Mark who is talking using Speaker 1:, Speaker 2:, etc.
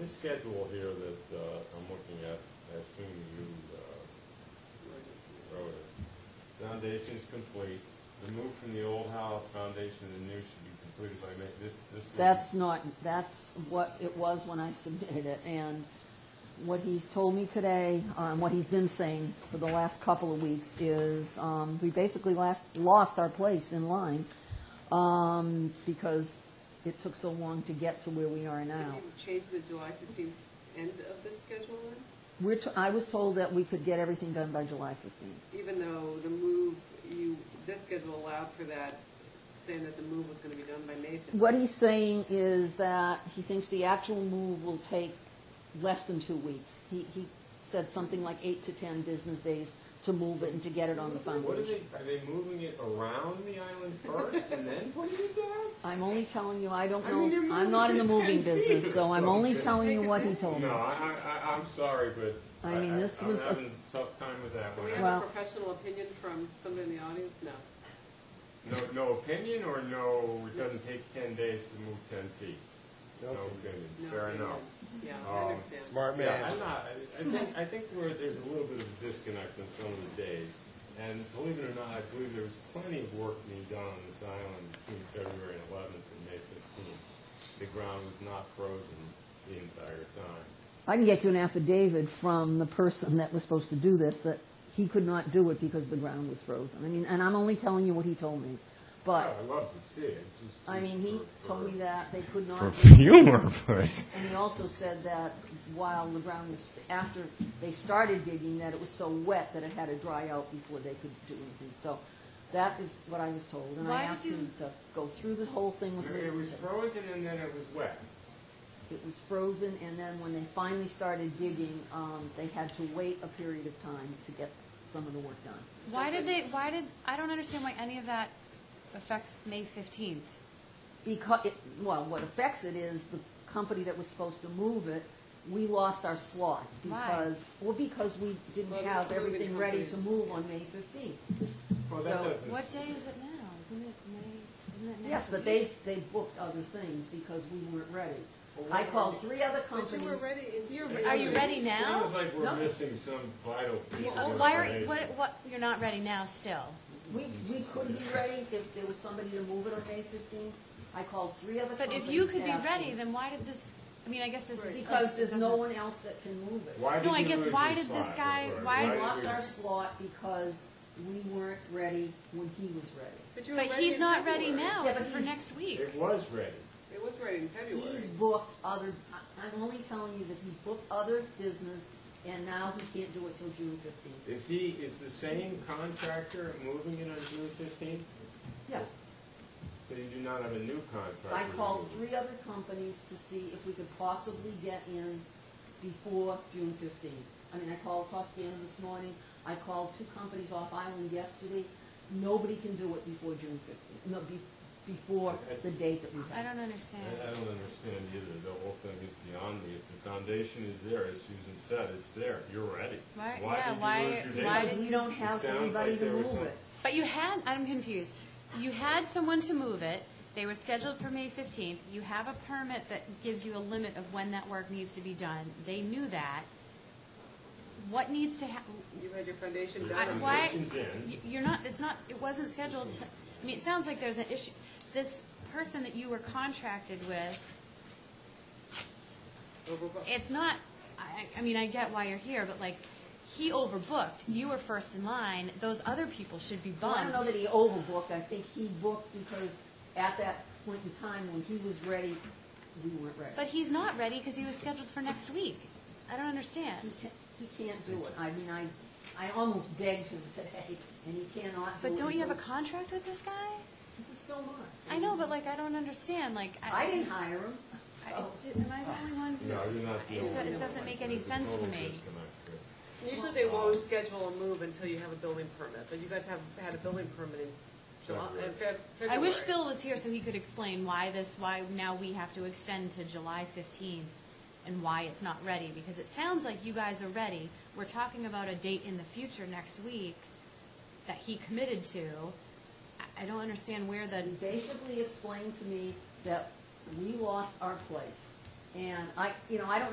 Speaker 1: this schedule here that uh, I'm looking at, I assume you uh, wrote it. Foundation's complete. The move from the old house foundation to the new should be completed by May, this, this. would be-
Speaker 2: That's not, that's what it was when I submitted it, and what he's told me today, um, what he's been saying for the last couple of weeks is, um, we basically last, lost our place in line, um, because it took so long to get to where we are now.
Speaker 3: Can you change the July fifteenth end of the schedule then?
Speaker 2: We're, t- I was told that we could get everything done by July fifteenth.
Speaker 3: Even though the move, you, this schedule allowed for that, saying that the move was gonna be done by May fifteenth.
Speaker 2: What he's saying is that he thinks the actual move will take less than two weeks. He, he said something like eight to 10 business days to move it and to get it on the
Speaker 1: What are
Speaker 2: foundation.
Speaker 1: they, are they moving it around the island first and then putting it down?
Speaker 2: I'm only telling you, I don't
Speaker 1: I mean,
Speaker 2: know,
Speaker 1: they're
Speaker 2: I'm not in the
Speaker 1: moving
Speaker 2: moving
Speaker 1: it 10 feet
Speaker 2: business,
Speaker 1: or
Speaker 2: so I'm only
Speaker 1: something.
Speaker 2: telling you
Speaker 3: Take it
Speaker 2: what he
Speaker 3: down.
Speaker 2: told
Speaker 1: No,
Speaker 2: me.
Speaker 1: I, I, I- I'm sorry, but I,
Speaker 2: I mean, this
Speaker 1: I- I'm
Speaker 2: was a-
Speaker 1: having a tough time with that
Speaker 3: Do
Speaker 1: one.
Speaker 3: we
Speaker 1: I-
Speaker 3: have
Speaker 2: Well-
Speaker 3: a professional opinion from somebody in the audience? No.
Speaker 1: No, no opinion or no, it doesn't take ten days to move ten feet? No opinion,
Speaker 3: No
Speaker 1: fair
Speaker 3: opinion.
Speaker 1: enough.
Speaker 3: Yeah,
Speaker 1: Um,
Speaker 3: I understand.
Speaker 4: Smart
Speaker 1: Yeah,
Speaker 4: man.
Speaker 1: I'm not, I- I think, I think we're, there's a little bit of a disconnect on some of the days. And believe it or not, I believe there was plenty of work being done on this island between February eleventh and May fifteenth. The ground was not frozen the entire time.
Speaker 2: I can get you an affidavit from the person that was supposed to do this, that he could not do it because the ground was frozen. I mean, and I'm only telling you what he told me. But,
Speaker 1: Yeah, I love to see it, just.
Speaker 2: I mean, he
Speaker 1: for-
Speaker 2: told me
Speaker 1: for-
Speaker 2: that they could not.
Speaker 4: For
Speaker 2: do it.
Speaker 4: humor, but
Speaker 2: And he also said that while the ground was, after they started digging, that it was so wet that it had to dry out before they could do anything. So that is what I was told, and
Speaker 5: Why
Speaker 2: I
Speaker 5: did
Speaker 2: asked
Speaker 5: you-
Speaker 2: him to go through the whole thing with me.
Speaker 1: It was frozen and then it was wet.
Speaker 2: It was frozen, and then when they finally started digging, um, they had to wait a period of time to get some of the work done.
Speaker 5: Why did they, why did, I don't understand why any of that affects May 15th.
Speaker 2: Because, it, well, what affects it is the company that was supposed to move it, we lost our slot.
Speaker 5: Why?
Speaker 2: Because, well, because we
Speaker 3: Well,
Speaker 2: didn't
Speaker 3: the
Speaker 2: have
Speaker 3: moving
Speaker 2: everything ready to
Speaker 3: companies.
Speaker 2: move on May fifteenth.
Speaker 1: Well, that
Speaker 2: So,
Speaker 1: doesn't.
Speaker 5: What day is it now? Isn't it May, isn't it next
Speaker 2: Yes, but they,
Speaker 5: week?
Speaker 2: they booked other things because we weren't ready.
Speaker 1: Well,
Speaker 2: I
Speaker 1: what
Speaker 2: called
Speaker 1: are
Speaker 2: three other
Speaker 3: But you
Speaker 2: companies.
Speaker 3: were ready in June.
Speaker 5: Are you ready now?
Speaker 1: Sounds like we're
Speaker 2: No.
Speaker 1: missing some vital piece
Speaker 5: Oh,
Speaker 1: of
Speaker 5: Why are,
Speaker 1: information.
Speaker 5: what, what, you're not ready now still?
Speaker 2: We, we couldn't be ready if there was somebody to move it on May fifteenth. I called three other
Speaker 5: But
Speaker 2: companies.
Speaker 5: if you could be
Speaker 2: asking.
Speaker 5: ready, then why did this, I mean, I guess this is.
Speaker 2: Because there's no
Speaker 5: doesn't-
Speaker 2: one else that can move it.
Speaker 1: Why did
Speaker 5: No, I
Speaker 1: you
Speaker 5: guess
Speaker 1: lose
Speaker 5: why
Speaker 1: your
Speaker 5: did this
Speaker 1: slot?
Speaker 5: guy- why
Speaker 2: We
Speaker 5: did-
Speaker 2: lost
Speaker 1: did
Speaker 2: our
Speaker 1: we-
Speaker 2: slot because we weren't ready when he was ready.
Speaker 3: But you were
Speaker 5: But
Speaker 3: ready
Speaker 5: he's
Speaker 3: in
Speaker 5: not ready
Speaker 3: February.
Speaker 5: now,
Speaker 2: Yeah,
Speaker 5: it's
Speaker 2: but
Speaker 5: for
Speaker 2: he's-
Speaker 5: next week.
Speaker 1: It was ready.
Speaker 3: It was ready in February.
Speaker 2: He's booked other, I- I'm only telling you that he's booked other business and now he can't do it till June fifteenth.
Speaker 1: Is he, is the same contractor moving it on June fifteenth?
Speaker 2: Yes.
Speaker 1: So you do not have a new contractor?
Speaker 2: I called
Speaker 1: moving it.
Speaker 2: three other companies to see if we could possibly get in before June fifteenth. I mean, I called Costanza this morning, I called two companies off island yesterday. Nobody can do it before June fifteenth, no, be, before the date that we have.
Speaker 5: I don't understand.
Speaker 1: I I don't understand either. The whole thing is beyond me. If the foundation is there, as Susan said, it's there. You're ready.
Speaker 5: Why-
Speaker 1: Why
Speaker 5: yeah,
Speaker 1: did you
Speaker 5: why-
Speaker 1: lose your date?
Speaker 5: why
Speaker 2: Because
Speaker 5: did
Speaker 2: we
Speaker 5: you-
Speaker 2: don't
Speaker 1: It
Speaker 2: have
Speaker 1: sounds
Speaker 2: anybody
Speaker 1: like
Speaker 2: to
Speaker 1: there was
Speaker 2: move
Speaker 1: some-
Speaker 2: it.
Speaker 5: But you had, I'm confused. You had someone to move it, they were scheduled for May 15th. You have a permit that gives you a limit of when that work needs to be done. They knew that. What needs to happen?
Speaker 3: You had your foundation
Speaker 1: I-
Speaker 3: done. on
Speaker 5: Why,
Speaker 1: Foundation's in.
Speaker 5: y- you're not, it's not, it wasn't scheduled, to- I mean, it sounds like there's an issue. This person that you were contracted with,
Speaker 3: overbook.
Speaker 5: it's not, I, I mean, I get why you're here, but like, he overbooked. You were first in line. Those other people should be
Speaker 2: Well,
Speaker 5: bumped.
Speaker 2: I don't know that he overbooked, I think he booked because at that point in time, when he was ready, we weren't ready.
Speaker 5: But he's not ready because he was scheduled for next week. I don't
Speaker 2: He
Speaker 5: understand.
Speaker 2: can't, he can't do it, I mean, I, I almost begged him today, and he cannot do it.
Speaker 5: But don't you have a
Speaker 2: because-
Speaker 5: contract with this guy?
Speaker 2: This is Phil Marks.
Speaker 5: I know, but like, I don't understand, like.
Speaker 2: I didn't hire him,
Speaker 5: I-
Speaker 2: so,
Speaker 5: did- Am I the only one who's?
Speaker 1: No, you're not the
Speaker 5: it-
Speaker 1: only one.
Speaker 5: It doesn't make any
Speaker 1: There's a
Speaker 5: sense to
Speaker 1: total
Speaker 5: me.
Speaker 1: disconnect here.
Speaker 3: Usually they won't schedule a move until you have a building permit, but you guys have had a building permit in July, in Feb- February.
Speaker 5: I wish Phil was here so he could explain why this, why now we have to extend to July fifteenth and why it's not ready, because it sounds like you guys are ready. We're talking about a date in the future next week that he committed to. I- I don't understand where the,
Speaker 2: he basically explained to me that we lost our place. And I, you know, I don't know